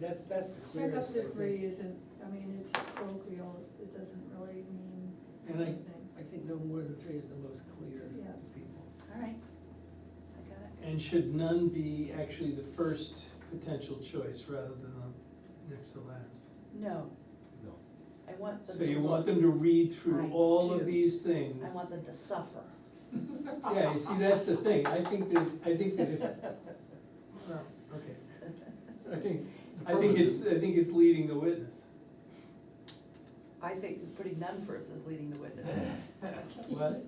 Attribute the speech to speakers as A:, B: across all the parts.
A: that's, that's the
B: Check up
A: clearest, I think.
B: debris isn't, I mean, it's just colloquial, it doesn't really mean
A: And I,
B: anything.
A: I think no more than three is the most clear
B: Yeah.
A: to people.
C: all right, I got it.
D: And should none be actually the first potential choice rather than the next to last?
C: No,
E: No.
C: I want them
D: So
C: to
D: you want
C: look,
D: them to read through
C: I
D: all of
C: do.
D: these things?
C: I want them to suffer.
D: Yeah, you see, that's the thing, I think that, I think that if, well, okay,
A: I think.
E: The
D: I think
E: purpose
D: it's,
E: is-
D: I think it's leading the witness.
C: I think putting none first is leading the witness.
D: What?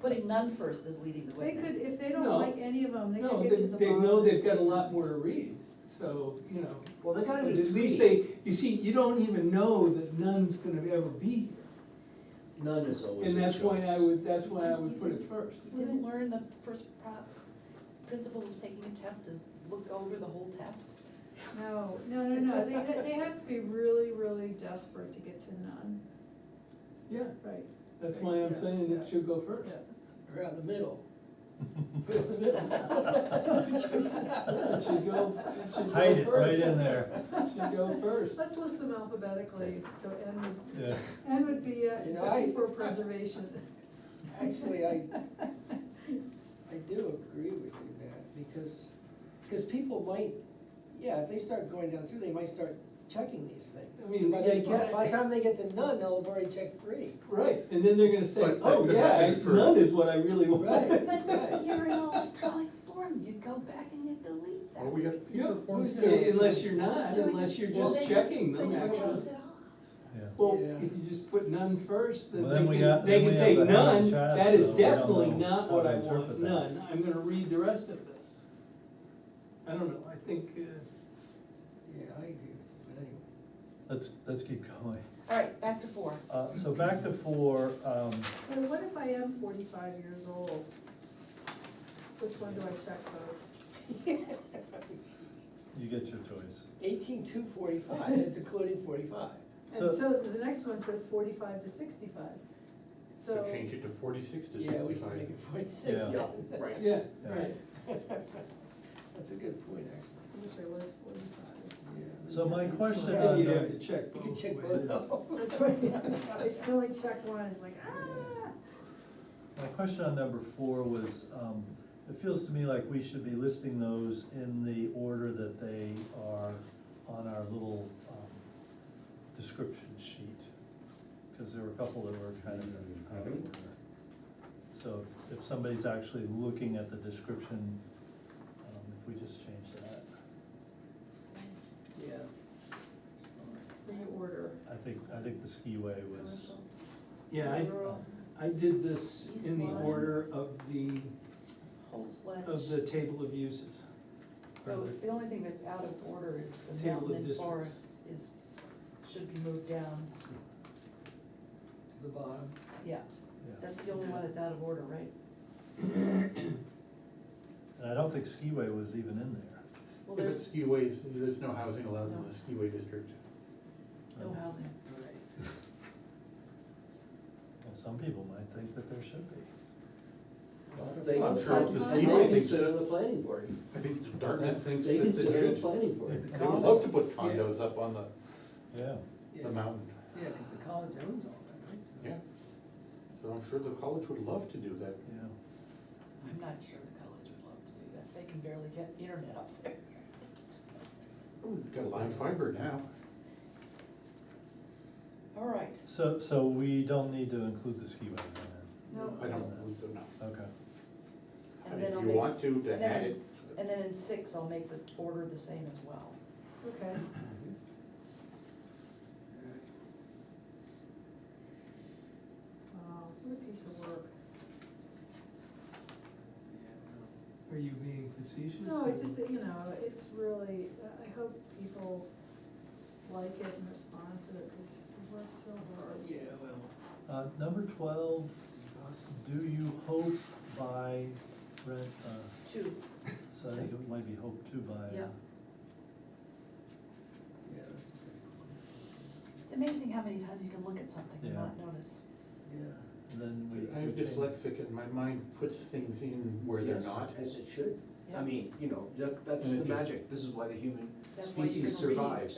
C: Putting none first is leading the
B: They could,
C: witness.
B: if they don't
D: No.
B: like any of them, they
D: No,
B: could
D: they,
B: get to the
D: they
B: bottom.
D: know they've got a lot more to read, so, you know.
E: Well, they gotta
D: But
E: do
D: at least
E: three.
D: they, you see, you don't even know that none's gonna ever be
E: None is always.
D: here,
E: a
D: and that's why I
E: choice.
D: would, that's why I would put it first.
C: You didn't learn the first pro, principle of taking a test is look over the whole test.
B: No, no, no, no, they, they- they have to be really, really desperate to get to none,
D: Yeah,
B: right,
D: that's why I'm
B: Yeah,
D: saying
B: yeah.
D: it should go first.
B: yeah.
A: Or out in the middle. Put it in the middle.
D: Yeah, It should go, it should go first.
F: Hide it right in there.
D: It should go first.
B: Let's list them alphabetically, so N would,
F: Yeah.
B: N would be, uh,
A: You know,
B: just
A: I-
B: before preservation.
A: Actually, I, I do agree with you that, because, because people might, yeah, if they start going down through, they might start checking these things.
D: I mean,
A: By the
D: they
A: time- by the
D: can't-
A: time they get to none, they'll have already checked three.
D: Right, and then they're gonna say,
F: But that
D: oh
F: could
D: yeah, I-
F: happen for-
D: none is what I really want.
A: Right.
C: But you're in electronic form, you go back and you delete that.
F: Or we got to keep
D: Yeah,
F: the forms.
A: who's
D: Un-
F: down.
D: Unless you're not,
C: Do it
D: unless you're
C: well,
D: just
C: then-
D: checking them,
C: Then you close
D: actually.
C: it off.
F: Yeah.
D: Well,
A: Yeah.
D: if you just put none first, then
F: Well, then we
D: they
F: got-
D: can, they
F: then
D: can
F: we
D: say,
F: have the Helen
D: none,
F: Child,
D: that is
F: so we don't
D: definitely
F: know
D: not
F: how
D: what
F: to
D: I want,
F: interpret that.
D: none, I'm gonna read the rest of this. I don't know, I think, uh,
A: Yeah, I agree with you, but anyway.
F: Let's, let's keep going.
C: All right, back to four.
F: Uh, so back to four, um,
B: But what if I am forty-five years old? Which one do I check first?
F: you get your choice.
A: Eighteen to forty-five, it's including forty-five.
F: So-
B: And so the next one says forty-five to sixty-five.
G: So change it to forty-six to
A: Yeah, we should make
G: sixty-five.
A: it forty-six.
F: Yeah.
G: Right.
D: yeah,
F: Yeah.
D: right.
A: That's a good point, actually.
B: I wish I was forty-five.
A: Yeah.
F: So my question
D: I think
F: on
D: you'd
F: the,
D: have to check
A: You can
D: both
A: check
D: ways.
A: both of them.
B: That's right. I still only checked one, it's like, ah.
F: my question on number four was, um, it feels to me like we should be listing those in the order that they are on our little, um, description sheet. Cause there were a couple that were kind of out of
G: Mhm.
F: order. So if somebody's actually looking at the description, um, if we just change that,
A: Yeah.
B: Reorder.
F: I think, I think the skiway was.
C: Commercial,
D: Yeah,
C: rural,
D: I, I did this
C: East
D: in the
C: line.
D: order of the,
C: Whole sledge.
D: of the table of uses.
C: So the only thing that's out of order is the
D: Table of
C: mountain and
D: districts.
C: forest is, should be moved down.
A: To the bottom.
C: Yeah,
F: Yeah,
C: that's the only one that's out of order, right?
F: and I don't think skiway was even in there.
C: Well,
G: If
C: there's
G: it's skiways, there's no housing allowed
C: No.
G: in the skiway district.
F: uh,
C: no housing.
F: Well, some people might think that there should be.
E: They
A: Well,
G: I'm
E: can
G: sure
E: try
G: if the
E: to
G: skiway thinks,
E: consider the planning board.
G: I think Dartmouth thinks
E: They
G: that they
E: consider the
G: should.
E: planning board.
G: They would love to put condos up on the,
F: Yeah.
G: the mountain,
A: Yeah, because the college owns all that, right? So-
G: yeah. So I'm sure the college would love to do that.
F: Yeah,
C: I'm not sure the college would love to do that, they can barely get internet up there.
G: Oh, We've got line fiber now.
C: All right,
F: so, so we don't need to include the skiway in
B: No.
G: I don't believe so, no.
F: there, okay.
C: and
G: And
C: then
G: if
C: I'll
G: you
C: make.
G: want to, to
C: and then-
G: add it.
C: And then in six, I'll make the order the same as well.
B: Okay, wow, Oh, what a piece of work.
D: Are you being facetious?
B: No, it's
D: or-
B: just, that, you know, it's really, uh, I- I hope people like it and respond to it, because we work so hard.
A: Yeah, well,
F: Uh, number twelve,
A: it's impossible.
F: do you hope by rent, uh,
C: Two,
F: so I think it might be hope to buy.
C: Yeah.
A: Yeah, that's a good point.
C: it's amazing how many times you can look at something and
F: Yeah.
C: not notice.
A: Yeah.
F: And then we.
G: I'm
F: we change-
G: dyslexic and my mind puts things in where they're
E: Yes,
G: not.
E: As it should.
C: I
G: Yeah.
C: mean, you know, that, that's
H: And
C: the
H: it just-
C: magic, this is why the human
G: That's why you
C: species
G: can read.
C: survives.